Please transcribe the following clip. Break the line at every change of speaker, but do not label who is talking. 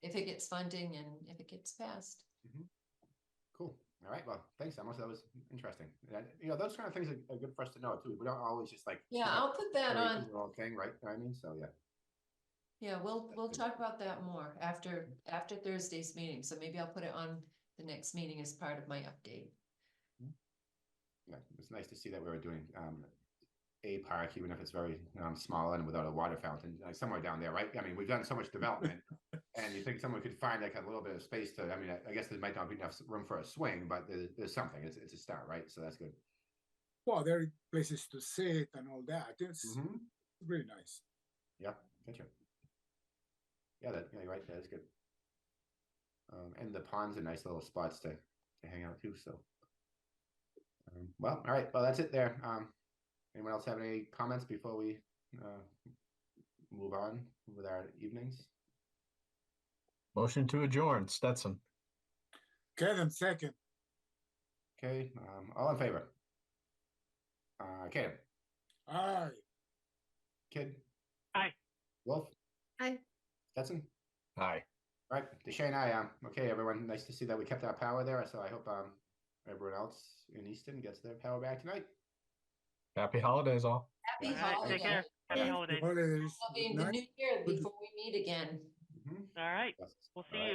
if it gets funding and if it gets passed.
Cool. All right. Well, thanks, Emma. That was interesting. And, you know, those kind of things are, are good for us to know too. We don't always just like.
Yeah, I'll put that on,
Our own thing, right? You know what I mean, so yeah.
yeah, we'll, we'll talk about that more after, after Thursday's meeting, so maybe I'll put it on the next meeting as part of my update.
Yeah, it was nice to see that we were doing um a park, even if it's very um small and without a water fountain, like somewhere down there, right? I mean, we've done so much development. And you think someone could find like a little bit of space to, I mean, I- I guess there might not be enough s- room for a swing, but there, there's something. It's it's a start, right? So that's good.
Well, there are places to sit and all that. It's
Mm-hmm.
really nice.
Gotcha. Yeah, that yeah, you're right. That is good. Um, and the ponds are nice little spots to to hang out too. So, um, well, all right. Well, that's it there. Um, anyone else have any comments before we uh, move on with our evenings?
Motion to adjourn, Stetson.
Kevin, second.
Okay. Um, all in favor? Uh, Kid.
Aye.
Kid.
Aye.
Wolf.
Aye.
Stetson.
Aye.
All Right, Deshane, I am. Okay, everyone, nice to see that we kept our power there, so I hope um everyone else in Easton gets their power back tonight.
Happy holidays all.
Happy
All right,
All right, take care.
holiday,
Happy
Yeah.
holidays.
Holidays.
I'll be in
Good
the
night.
new year before we meet again.
Mhm.
All right,
Yes.
we'll
All
see
right.
you.